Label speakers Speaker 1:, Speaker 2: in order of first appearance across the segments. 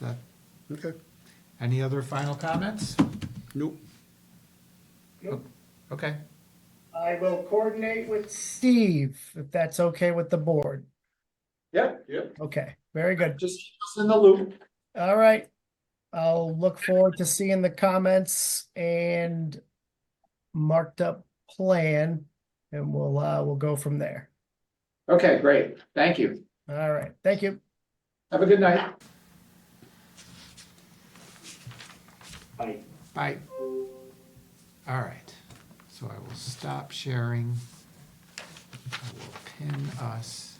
Speaker 1: That-
Speaker 2: Okay.
Speaker 1: Any other final comments?
Speaker 2: Nope.
Speaker 1: Okay,
Speaker 3: I will coordinate with Steve, if that's okay with the board.
Speaker 4: Yep, yep,
Speaker 3: Okay, very good.
Speaker 4: just keep us in the loop.
Speaker 3: All right. I'll look forward to seeing the comments and marked up plan and we'll, uh, we'll go from there.
Speaker 4: Okay, great. Thank you.
Speaker 3: All right, thank you.
Speaker 4: Have a good night.
Speaker 5: Bye.
Speaker 1: bye. All right, so I will stop sharing. I will pin us.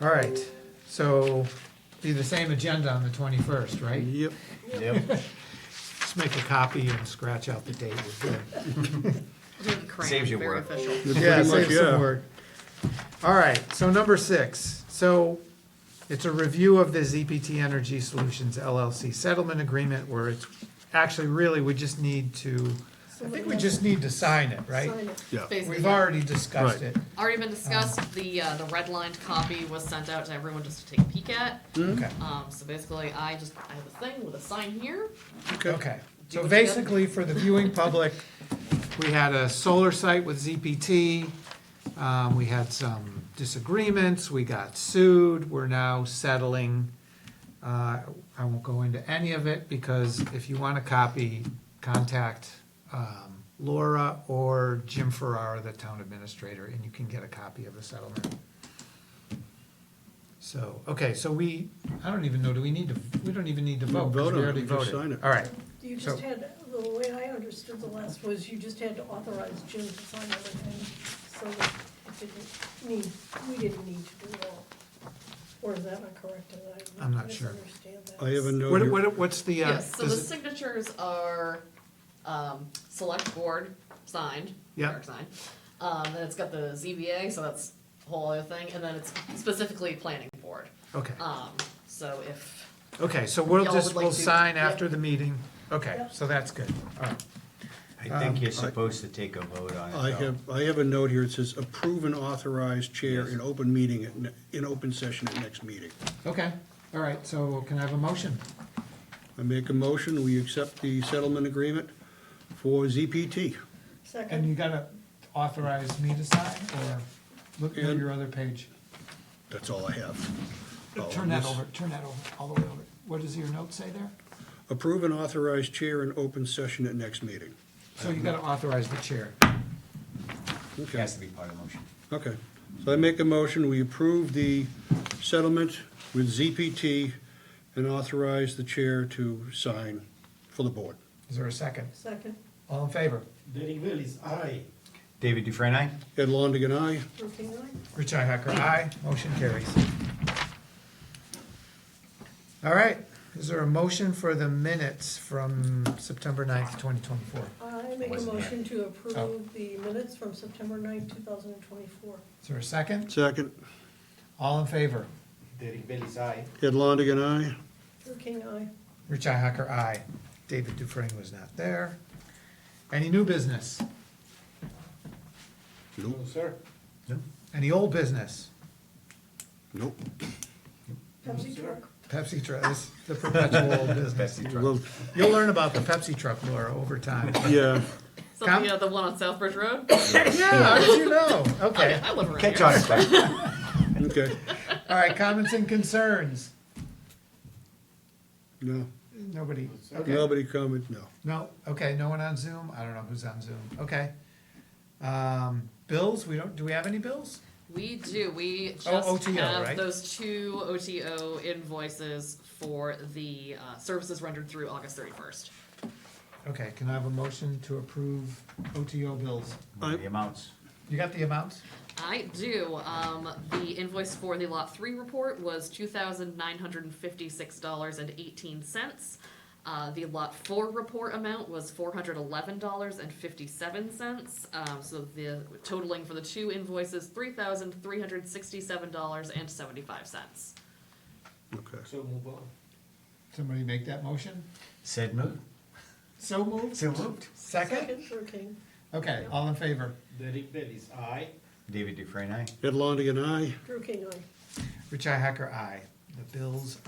Speaker 1: All right, so be the same agenda on the 21st, right?
Speaker 2: Yep.
Speaker 1: Just make a copy and scratch out the date. We're good.
Speaker 6: Doing crayon,
Speaker 7: Saves you
Speaker 6: very
Speaker 7: work.
Speaker 6: official.
Speaker 1: Yeah,
Speaker 2: Pretty much,
Speaker 1: save some
Speaker 2: yeah.
Speaker 1: work. All right, so number six, so it's a review of the ZPT Energy Solutions LLC settlement agreement where it's, actually really, we just need to, I think we just need to sign it, right?
Speaker 2: Yeah.
Speaker 6: Basically,
Speaker 1: We've already discussed
Speaker 2: Right.
Speaker 1: it.
Speaker 6: already been discussed, the, uh, the redlined copy was sent out to everyone just to take a peek at.
Speaker 1: Okay,
Speaker 6: Um, so basically, I just, I have a thing with a sign here,
Speaker 1: okay.
Speaker 6: you
Speaker 1: So
Speaker 6: want to go?
Speaker 1: basically, for the viewing public, we had a solar site with ZPT. Um, we had some disagreements, we got sued, we're now settling. Uh, I won't go into any of it because if you want a copy, contact um, Laura or Jim Ferrara, the town administrator, and you can get a copy of the settlement. So, okay, so we, I don't even know, do we need to, we don't even need to vote because
Speaker 2: Vote on
Speaker 1: we
Speaker 2: it,
Speaker 1: already
Speaker 2: we just
Speaker 1: voted.
Speaker 2: sign it.
Speaker 1: All right,
Speaker 8: You
Speaker 1: So-
Speaker 8: just had, the way I understood the last was you just had to authorize Jim to sign everything, so that it didn't need, we didn't need to do it all. Or is that not correct? Did I
Speaker 1: I'm not sure.
Speaker 8: misunderstand that?
Speaker 2: I have a note
Speaker 1: what,
Speaker 2: here.
Speaker 1: what, what's the, uh,
Speaker 6: Yes, so the
Speaker 1: does it-
Speaker 6: signatures are, um, select board signed,
Speaker 1: Yeah.
Speaker 6: Eric signed. Um, then it's got the ZBA, so that's a whole other thing, and then it's specifically planning board.
Speaker 1: okay,
Speaker 6: Um, so if,
Speaker 1: okay, so we'll
Speaker 6: Y'all
Speaker 1: just,
Speaker 6: would like
Speaker 1: we'll
Speaker 6: to-
Speaker 1: sign
Speaker 6: yeah.
Speaker 1: after the meeting. Okay,
Speaker 8: Yep.
Speaker 1: so that's good, all right.
Speaker 7: Um, I think you're supposed to take a vote on it.
Speaker 2: I
Speaker 7: though.
Speaker 2: have, I have a note here. It says approve and authorize chair in open meeting, at ne- in open session at next meeting.
Speaker 1: Okay, all right, so can I have a motion?
Speaker 2: I make a motion, we accept the settlement agreement for ZPT.
Speaker 1: And you
Speaker 8: Second,
Speaker 1: gotta authorize me to sign, or look at
Speaker 2: And-
Speaker 1: your other page?
Speaker 2: That's all I have. Oh,
Speaker 1: Turn that
Speaker 2: this-
Speaker 1: over, turn that over, all the way over. What does your note say there?
Speaker 2: Approve and authorize chair in open session at next meeting.
Speaker 1: So you gotta authorize the chair.
Speaker 7: It
Speaker 2: Okay,
Speaker 7: has to be part of the motion.
Speaker 2: okay. So I make a motion, we approve the settlement with ZPT and authorize the chair to sign for the board.
Speaker 1: Is there a second?
Speaker 8: second,
Speaker 1: All in favor?
Speaker 5: Derek Bell is aye.
Speaker 7: David Dufresne, aye?
Speaker 2: Ed Longigan, aye.
Speaker 8: working line?
Speaker 1: Richi Hacker, aye. Motion carries. All right, is there a motion for the minutes from September 9th, twenty twenty-four?
Speaker 8: I make a
Speaker 7: Wasn't here.
Speaker 8: motion to
Speaker 1: Oh.
Speaker 8: approve the minutes from September ninth, two thousand and twenty-four.
Speaker 1: Is there a second?
Speaker 2: Second,
Speaker 1: All in favor?
Speaker 5: Derek Bell is aye.
Speaker 2: Ed Longigan, aye.
Speaker 8: Working eye,
Speaker 1: Richi Hacker, aye. David Dufresne was not there. Any new business?
Speaker 2: Nope,
Speaker 5: sir.
Speaker 1: Any old business?
Speaker 2: nope.
Speaker 8: Pepsi truck.
Speaker 1: Pepsi truck, this, the perpetual old business.
Speaker 7: Betsy Truss.
Speaker 2: Well,
Speaker 1: You'll learn about the Pepsi truck, Laura, over time.
Speaker 2: Yeah,
Speaker 6: so
Speaker 1: Com-
Speaker 6: the, uh, the one on Southbridge Road,
Speaker 1: Yeah, how did you know? Okay,
Speaker 6: I live around here.
Speaker 7: Catch on, Betsy.
Speaker 2: okay,
Speaker 1: all right, comments and concerns?
Speaker 2: no,
Speaker 1: Nobody, okay,
Speaker 2: nobody comment, no.
Speaker 1: no, okay, no one on Zoom? I don't know who's on Zoom, okay. Um, bills, we don't, do we have any bills?
Speaker 6: We do, we just
Speaker 1: OTO, right?
Speaker 6: have those two OTO invoices for the uh, services rendered through August thirty-first.
Speaker 1: Okay, can I have a motion to approve OTO bills?
Speaker 7: The amounts.
Speaker 1: You got the amounts?
Speaker 6: I do, um, the invoice for the Lot Three report was two thousand nine hundred and fifty-six dollars and eighteen cents. Uh, the Lot Four report amount was four hundred eleven dollars and fifty-seven cents, um, so the totaling for the two invoices, three thousand three hundred sixty-seven dollars and seventy-five cents.
Speaker 2: Okay.
Speaker 5: So move on.
Speaker 1: Somebody make that motion?
Speaker 7: Said moved.
Speaker 1: So moved?
Speaker 7: So moved.
Speaker 1: Second?
Speaker 8: Working,
Speaker 1: Okay, all in favor?
Speaker 5: Derek Bell is aye.
Speaker 7: David Dufresne, aye?
Speaker 2: Ed Longigan, aye.
Speaker 8: working eye.
Speaker 1: Richi Hacker, aye. The bills